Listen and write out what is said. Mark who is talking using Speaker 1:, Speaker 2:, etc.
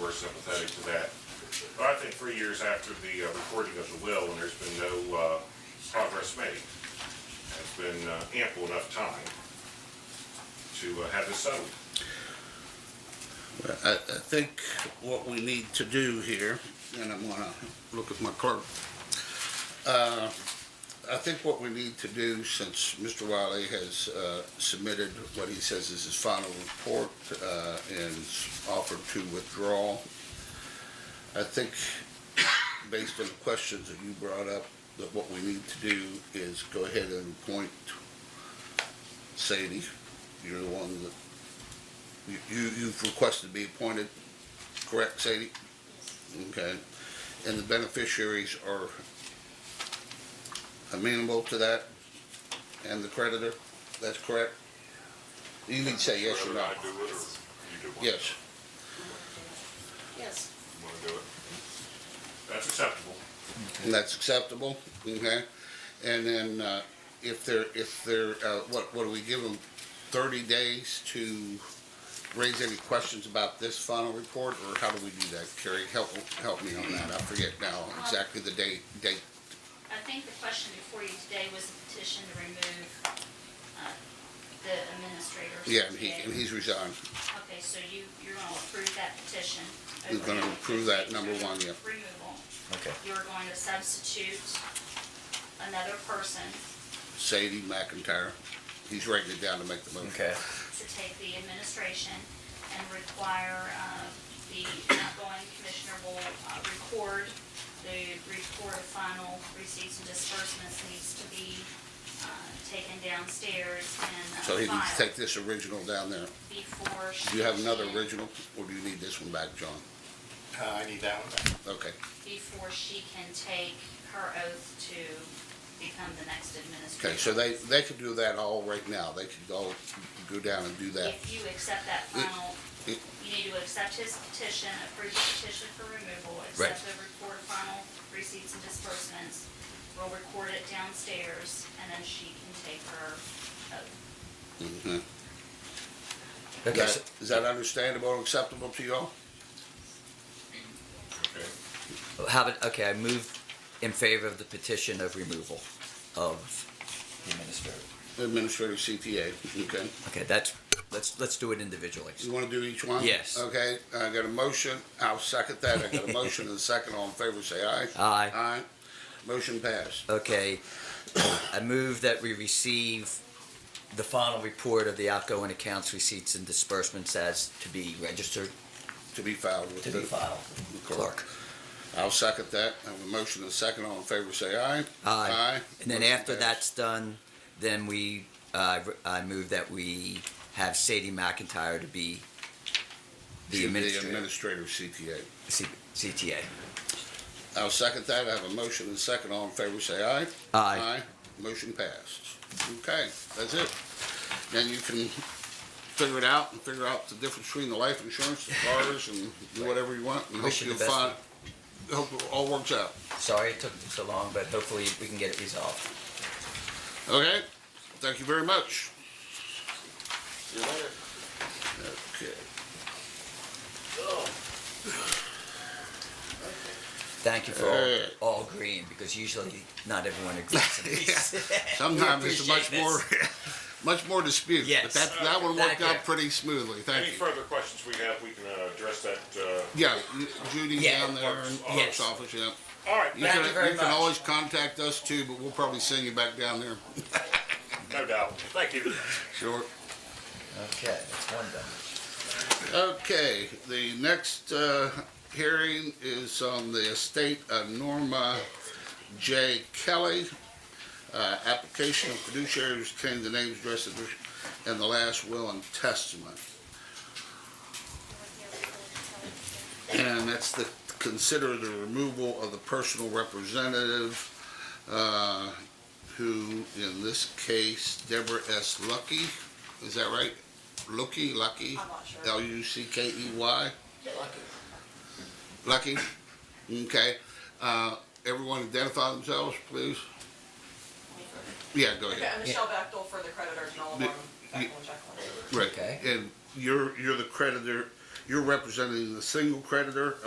Speaker 1: we're sympathetic to that. But I think three years after the uh, recording of the will, and there's been no uh, progress made, has been uh, ample enough time to uh, have this settled.
Speaker 2: I, I think what we need to do here, and I'm gonna look at my clerk. Uh, I think what we need to do, since Mr. Wiley has, uh, submitted what he says is his final report, uh, and offered to withdraw, I think, based on the questions that you brought up, that what we need to do is go ahead and appoint Sadie. You're the one that you, you- you've requested to be appointed, correct, Sadie? Okay. And the beneficiaries are amenable to that, and the creditor, that's correct? You need to say yes or
Speaker 1: Whether
Speaker 2: no.
Speaker 1: I do it or you do it.
Speaker 2: Yes,
Speaker 3: Yes,
Speaker 1: You want to do it? That's acceptable.
Speaker 2: and that's acceptable, okay? And then, uh, if they're, if they're, uh, what, what do we give them, thirty days to raise any questions about this final report, or how do we do that? Carrie, help, help me on that, I forget now exactly the date, date
Speaker 4: I think the question before you today was the petition to remove uh, the administrator.
Speaker 2: Yeah, and he,
Speaker 4: today.
Speaker 2: and he's resigned.
Speaker 4: Okay, so you, you're going to approve that petition.
Speaker 2: We're gonna
Speaker 4: overall,
Speaker 2: approve that, number
Speaker 4: petition
Speaker 2: one, yeah.
Speaker 4: Removal.
Speaker 5: Okay.
Speaker 4: You're going to substitute another person
Speaker 2: Sadie McIntyre, he's writing it down to make the motion.
Speaker 5: Okay.
Speaker 4: to take the administration and require uh, the outgoing commissioner will uh, record the report of final receipts and disbursements needs to be uh, taken downstairs and uh,
Speaker 2: So he needs to
Speaker 4: filed
Speaker 2: take this original down there.
Speaker 4: before. she
Speaker 2: Do you have another
Speaker 4: can-
Speaker 2: original, or do you need this one back, John?
Speaker 6: Uh, I need that one back.
Speaker 2: Okay,
Speaker 4: Before she can take her oath to become the next
Speaker 2: okay,
Speaker 4: administrator.
Speaker 2: so they, they could do that all right now, they could all go down and do that.
Speaker 4: If you accept that final,
Speaker 2: it-
Speaker 4: you need to accept his petition, approve the petition for removal,
Speaker 5: Right.
Speaker 4: accept the report of final receipts and disbursements. We'll record it downstairs, and then she can take her oath.
Speaker 2: Mhm. Is
Speaker 5: Okay, so-
Speaker 2: that- is that understandable and acceptable to y'all?
Speaker 1: Okay.
Speaker 5: how about, okay, I moved in favor of the petition of removal of the administrator.
Speaker 2: Administrative CTA, okay.
Speaker 5: Okay, that's, let's, let's do it individually.
Speaker 2: You wanna do each one?
Speaker 5: Yes.
Speaker 2: Okay, I got a motion, I'll second that, I got a motion and a second, all in favor, say aye.
Speaker 5: Aye.
Speaker 2: Aye, motion passed.
Speaker 5: Okay, I move that we receive the final report of the outgoing accounts, receipts, and disbursements as to be registered.
Speaker 2: To be filed with the.
Speaker 5: filed. Clerk.
Speaker 2: I'll second that. I have a motion and a second. All in favor, say aye. Aye.
Speaker 5: Aye. And then
Speaker 2: Motion
Speaker 5: after
Speaker 2: passed.
Speaker 5: that's done, then we, uh, I move that we have Sadie McIntyre to be the
Speaker 2: Should be
Speaker 5: administrator,
Speaker 2: administrator of CTA.
Speaker 5: C- CTA.
Speaker 2: I'll second that. I have a motion and a second. All in favor, say aye.
Speaker 5: Aye.
Speaker 2: Motion passed. Okay, that's it. Then you can figure it out and figure out the difference between the life insurance, the cars, and do whatever you want. And hope
Speaker 5: Wish you
Speaker 2: you'll
Speaker 5: the best.
Speaker 2: find, hope it all works out.
Speaker 5: Sorry it took so long, but hopefully we can get it resolved.
Speaker 2: Okay? Thank you very much. Okay.
Speaker 5: Thank you for
Speaker 2: Uh.
Speaker 5: all, all agreeing, because usually not everyone agrees. on these.
Speaker 2: Sometimes
Speaker 5: We
Speaker 2: it's much
Speaker 5: appreciate
Speaker 2: more,
Speaker 5: this.
Speaker 2: much more dispute. But
Speaker 5: Yes.
Speaker 2: that, that one worked
Speaker 5: Thank you.
Speaker 2: out pretty smoothly,
Speaker 1: Any
Speaker 2: thank you.
Speaker 1: further questions we have, we can uh, address that. uh,
Speaker 2: Yeah, Judy
Speaker 5: Yeah.
Speaker 2: down there in
Speaker 5: Yes.
Speaker 2: clerk's office, yeah.
Speaker 1: All right,
Speaker 2: You
Speaker 5: Thank
Speaker 2: can,
Speaker 5: you very
Speaker 2: you can
Speaker 5: much.
Speaker 2: always contact us too, but we'll probably send you back down there.
Speaker 1: no doubt. Thank you.
Speaker 2: Sure.
Speaker 5: Okay, that's one done.
Speaker 2: Okay, the next, uh, hearing is on the estate of Norma J. Kelly. Uh, application of fiduciaries claim the names, addresses, and the last will and testament. And that's the, consider the removal of the personal representative, uh, who, in this case, Deborah S. Lucky, is that right? Lucky, Lucky?
Speaker 3: I'm not sure.
Speaker 2: L U C K E Y?
Speaker 3: Lucky.
Speaker 2: Lucky? Okay. Uh, everyone identify themselves, please. Yeah, go
Speaker 3: Okay,
Speaker 2: ahead.
Speaker 3: I'm Michelle Bechtel for the creditors, and all of
Speaker 2: Yeah.
Speaker 3: them, Bechtel and Jacqueline.
Speaker 2: Right.
Speaker 5: Okay.
Speaker 2: And you're, you're the creditor You're representing the single creditor